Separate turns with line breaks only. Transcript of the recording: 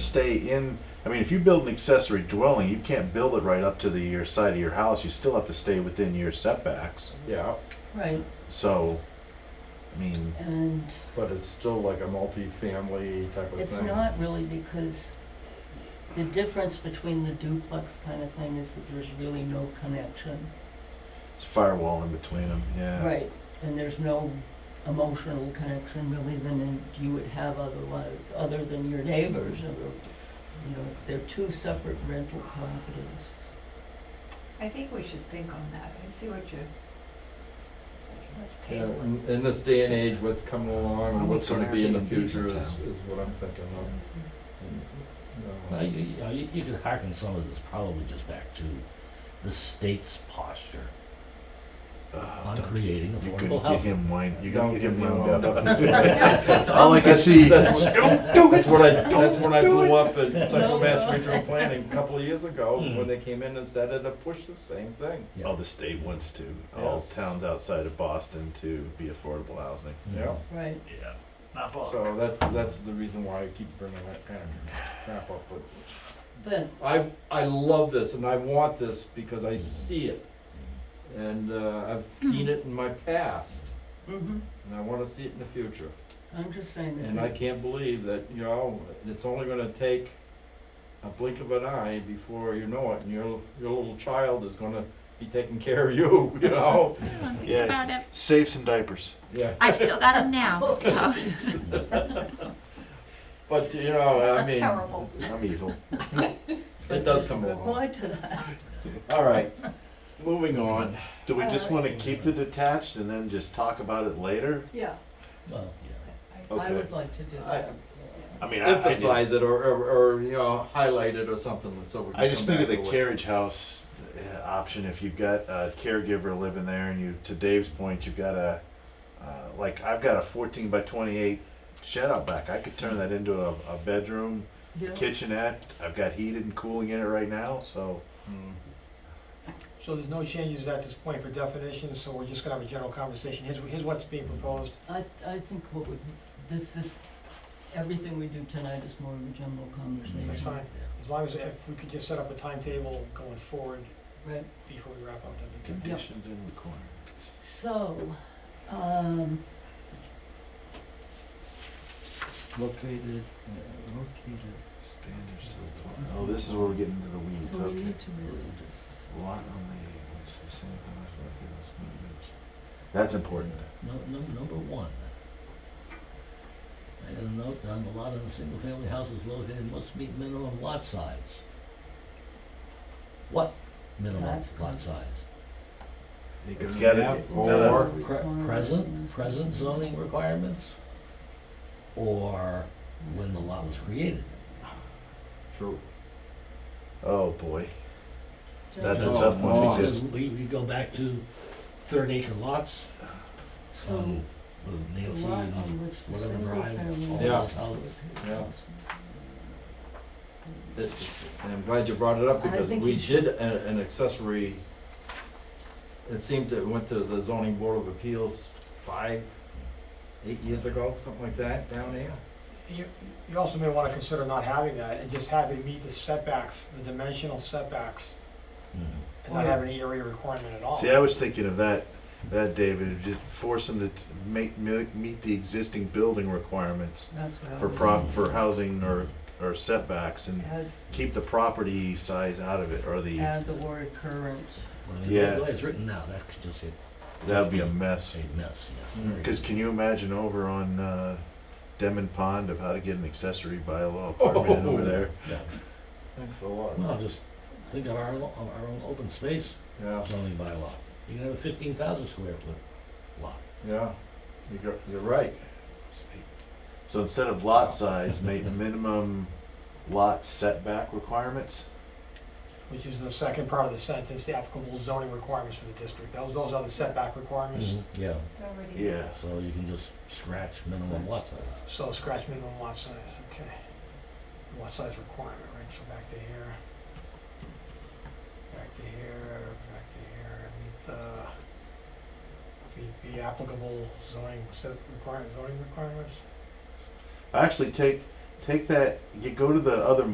stay in, I mean, if you build an accessory dwelling, you can't build it right up to the your side of your house, you still have to stay within your setbacks,
Yeah,
Right,
so, I mean,
and
but it's still like a multi-family type of thing.
it's not really because the difference between the duplex kind of thing is that there's really no connection.
it's a firewall in between them, yeah.
Right, and there's no emotional connection really than in- you would have otherwise, other than your neighbors, or, you know, they're two separate rental properties.
I think we should think on that. I see what you're saying. Let's
Yeah,
table
in, in this day and age, what's coming along,
Well,
and
what's
what's gonna
on
be in the
Airbnbs in
future is,
town?
is what I'm thinking
it.
of. And, you know,
Now, you, you, know, you, you could harken some of this probably just back to the state's posture
Ugh,
on
don't-
creating
You're gonna get
affordable housing.
him wind, you're gonna
Don't
get him
get me
wound
wound
up.
Oh,
All I can see,
That's- that's-
don't do
That's
it,
when I, that's when I blew up at
No,
Central Mass
no.
Regional Planning a couple of years ago,
Hmm.
when they came in and said it'd push the same thing.
Yeah.
Oh, the state wants to, all
Yes.
towns outside of Boston to be affordable housing.
Mhm.
Yeah.
Right,
Yeah, not
So that's, that's the reason why I keep bringing that kind of crap up, but
but,
I, I love this and I want this because I see it. And uh, I've seen it in my past
mhm,
and I want to see it in the future.
I'm just saying that.
And I can't believe that, you know, it's only going to take a blink of an eye before you know it and your, your little child is going to be taking care of you, you know?
Yeah.
About it.
Save some diapers.
Yeah.
I've still got them now, so.
But, you know, I
That's
mean,
terrible.
I'm evil.
it does come
Good
along.
point to that.
All right, moving on.
Do we just wanna keep the detached and then just talk about it later?
Yeah.
Well, yeah.
I
Okay.
would like to do
I-
that.
I mean, I, I did-
Emphasize it or, or, or, you know, highlight it or something so we can
I just
come
think of the
back to it.
carriage house uh, option, if you've got a caregiver living there and you, to Dave's point, you've got a, uh, like, I've got a fourteen by twenty-eight shed out back, I could turn that into a, a bedroom,
Yeah.
kitchenette, I've got heated and cooling in it right now, so.
Mm.
So there's no changes at this point for definitions, so we're just gonna have a general conversation. Here's, here's what's being proposed.
I, I think what would, this is, everything we do tonight is more of a general conversation.
That's fine.
Yeah.
As long as, if we could just set up a timetable going forward
Right,
before we wrap up, that'd be good.
Conditions and requirements.
so, um,
Located, uh, located.
Standards to apply. Oh, this is where we're getting into the weeds,
so
okay.
we need to really just.
Lot on the, which is the same thing as located as movements. That's important.
No, no, number one. I got a note down, the lot of the single-family houses located must meet minimum lot size. What minimum
That's
lot
good.
size?
It's gotta be-
Or,
Or-
Pre- Present, present zoning requirements? Or when the lot was created?
true.
Oh, boy. That's a
No,
tough one
no,
because-
We, we go back to third acre lots,
So,
um, with
the
Nancy
lot
and
on which the
whatever
single
drive, all
family.
Yeah.
those houses.
Yeah. It- And I'm glad you brought it up
I
because
think
we
you should-
did a- an accessory, it seemed to, it went to the zoning board of appeals five, eight years ago, something like that, down there.
You, you also may wanna consider not having that and just have it meet the setbacks, the dimensional setbacks,
Mhm.
and not
Right.
have any area requirement at all.
See, I was thinking of that, that David, just force them to t- make, mi- meet the existing building requirements
That's what I
for
was-
prop, for housing or, or setbacks and
Add,
keep the property size out of it or the,
add the word current.
Well, I mean,
Yeah.
The way it's written now, that could just hit
that'd be a mess.
a mess, yes.
Mm.
Cause can you imagine over on, uh, Demon Pond of how to get an accessory bylaw apartment in over there?
Yeah.
Thanks a lot.
Well, just think of our, lo- of our own open space
Yeah,
zoning bylaw. You can have a fifteen thousand square foot lot.
yeah, you go- you're right.
So instead of lot size, make minimum lot setback requirements?
Which is the second part of the sentence, the applicable zoning requirements for the district. Those, those are the setback requirements,
Yeah,
It's already.
Yeah.
so you can just scratch minimum lot size.
so scratch minimum lot size, okay. Lot size requirement, right, so back to here. Back to here, back to here, meet the, meet the applicable zoning set require, zoning requirements.
Actually, take take that, you go to the other